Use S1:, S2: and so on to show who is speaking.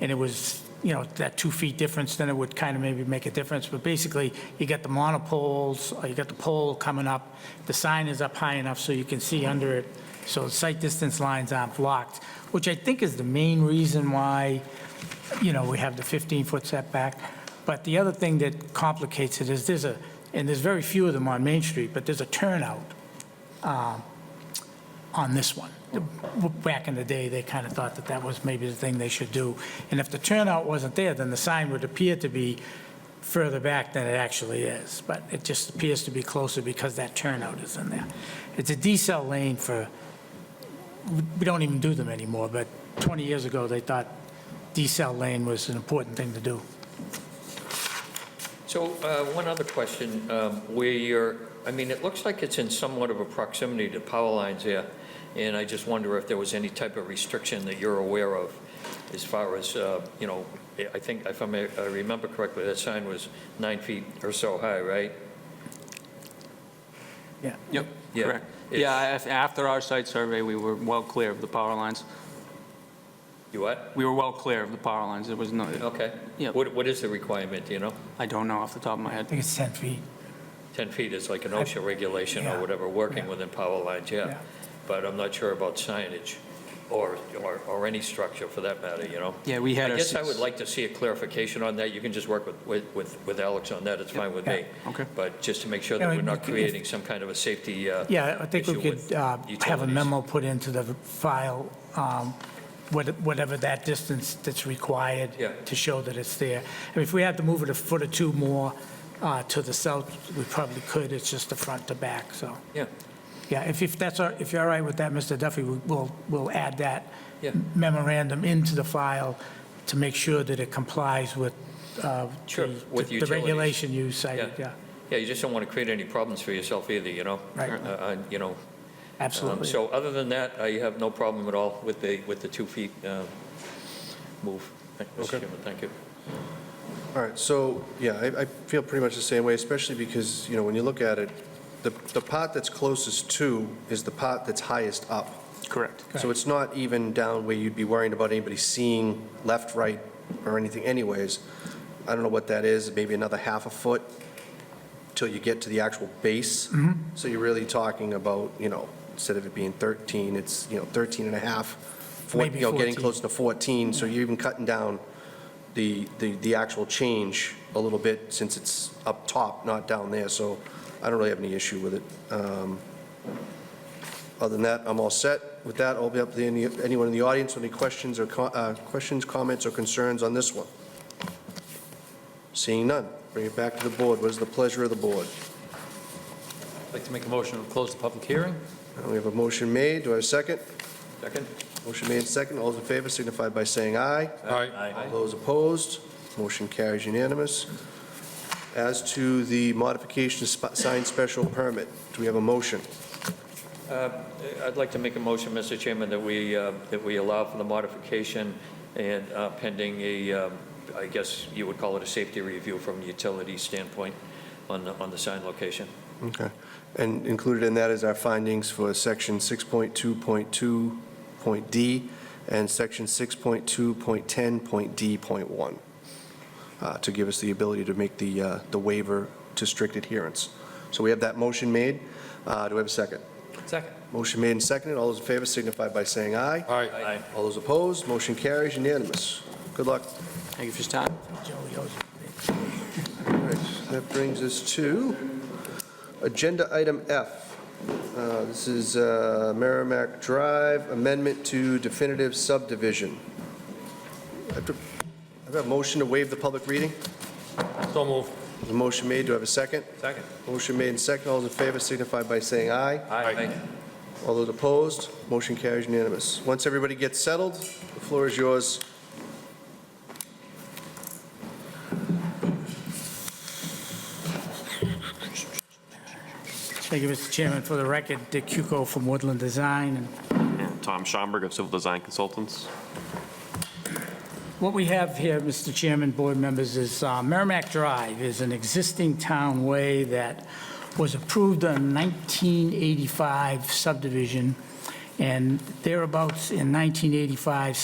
S1: and it was, you know, that two feet difference, then it would kind of maybe make a difference. But basically, you got the monopoles, or you got the pole coming up, the sign is up high enough so you can see under it, so sight distance lines aren't blocked, which I think is the main reason why, you know, we have the 15-foot setback. But the other thing that complicates it is there's a, and there's very few of them on Main Street, but there's a turnout on this one. Back in the day, they kind of thought that that was maybe the thing they should do. And if the turnout wasn't there, then the sign would appear to be further back than it actually is. But it just appears to be closer because that turnout is in there. It's a decel lane for, we don't even do them anymore, but 20 years ago, they thought decel lane was an important thing to do.
S2: So uh, one other question, um, where you're, I mean, it looks like it's in somewhat of a proximity to power lines here, and I just wonder if there was any type of restriction that you're aware of as far as, uh, you know, I think, if I may- I remember correctly, that sign was nine feet or so high, right?
S1: Yeah.
S3: Yep,
S2: Yeah.
S3: correct.
S2: It's-
S3: Yeah, af- after our site survey, we were well clear of the power lines.
S2: You what?
S3: We were well clear of the power lines. There was no,
S2: Okay.
S3: Yeah.
S2: What What is the requirement, do you know?
S3: I don't know off the top of my
S1: I
S3: head.
S1: think it's 10 feet.
S2: 10 feet is like an OSHA regulation
S1: Yeah.
S2: or whatever, working
S1: Yeah.
S2: within power lines, yeah.
S1: Yeah.
S2: But I'm not sure about signage or or or any structure for that matter, you know?
S3: Yeah, we had
S2: I
S3: our.
S2: guess I
S3: s-
S2: would like to see a clarification on that. You can just work with- with, with, with Alex on that, it's fine with me.
S3: Yeah, okay.
S2: But just to make sure that
S1: Yeah,
S2: we're not
S1: if- if-
S2: creating some kind of a safety uh,
S1: Yeah, I think we
S2: issue
S1: could
S2: with
S1: uh, have a
S2: utilities.
S1: memo put into the file, um, what- whatever that distance that's required
S2: Yeah.
S1: to show that it's there. I mean, if we had to move it a foot or two more uh, to the south, we probably could, it's just the front to back, so.
S2: Yeah,
S1: Yeah, if, if that's, all- if you're all right with that, Mr. Duffy, we- we'll, we'll add that
S2: Yeah.
S1: memorandum into the file to make sure that it complies with uh,
S2: Sure,
S1: the-
S2: with
S1: the
S2: utilities.
S1: regulation you cited,
S2: Yeah.
S1: yeah,
S2: yeah, you just don't want to create any problems for yourself either, you know?
S1: Right.
S2: Uh, uh, You know, um,
S1: absolutely.
S2: so other than that, I have no problem at all with the, with the two feet uh, move. Thank- Mr. Chairman, thank you.
S4: All right, so, yeah, I, I feel pretty much the same way, especially because, you know, when you look at it, the, the part that's closest to is the part that's highest up.
S3: Correct.
S4: So it's not even down where you'd be worrying about anybody seeing left, right, or anything anyways. I don't know what that is, maybe another half a foot till you get to the actual base. So you're really talking about, you know, instead of it being 13, it's, you know, 13 and a half, four-
S1: Maybe
S4: you know, getting
S1: 14.
S4: close to 14, so you're even cutting down the, the, the actual change a little bit since it's up top, not down there, so I don't really have any issue with it. Um, Other than that, I'm all set. With that, I'll be up to any, anyone in the audience with any questions or, co- uh, questions, comments, or concerns on this one. Seeing none, bring it back to the board. What is the pleasure of the board?
S5: I'd like to make a motion to close the public hearing.
S4: Uh, We have a motion made, do I have a second?
S5: Second?
S4: Motion made and second, all those in favor signify by saying aye.
S5: Aye.
S4: All those opposed, motion carries unanimous. As to the modification of sp- sign special permit, do we have a motion?
S2: uh, I'd like to make a motion, Mr. Chairman, that we, uh, that we allow for the modification and uh, pending a, um, I guess you would call it a safety review from a utility standpoint on the, on the sign location.
S4: Okay. And included in that is our findings for section 6.2.2.d and section 6.2.10.d.1, uh, to give us the ability to make the uh, the waiver to strict adherence. So we have that motion made. Uh, Do we have a second?
S5: Second.
S4: Motion made and seconded. All those in favor signify by saying aye.
S5: Aye.
S4: All those opposed, motion carries unanimous. Good luck.
S3: Thank you for your time.
S1: Joey owes it.
S4: All right, that brings us to Agenda Item F. Uh, This is uh, Merrimack Drive Amendment to Definitive Subdivision. I have to- I have a motion to waive the public reading.
S5: So moved.
S4: There's a motion made, do I have a second?
S5: Second.
S4: Motion made and second, all those in favor signify by saying aye.
S5: Aye.
S4: All those opposed, motion carries unanimous. Once everybody gets settled, the floor is yours.
S1: Thank you, Mr. Chairman. For the record, Dick Cuco from Woodland Design. And
S6: And Tom Schomburg of Civil Design Consultants.
S1: What we have here, Mr. Chairman, board members, is uh, Merrimack Drive is an existing town way that was approved in 1985 subdivision, and thereabouts in 1985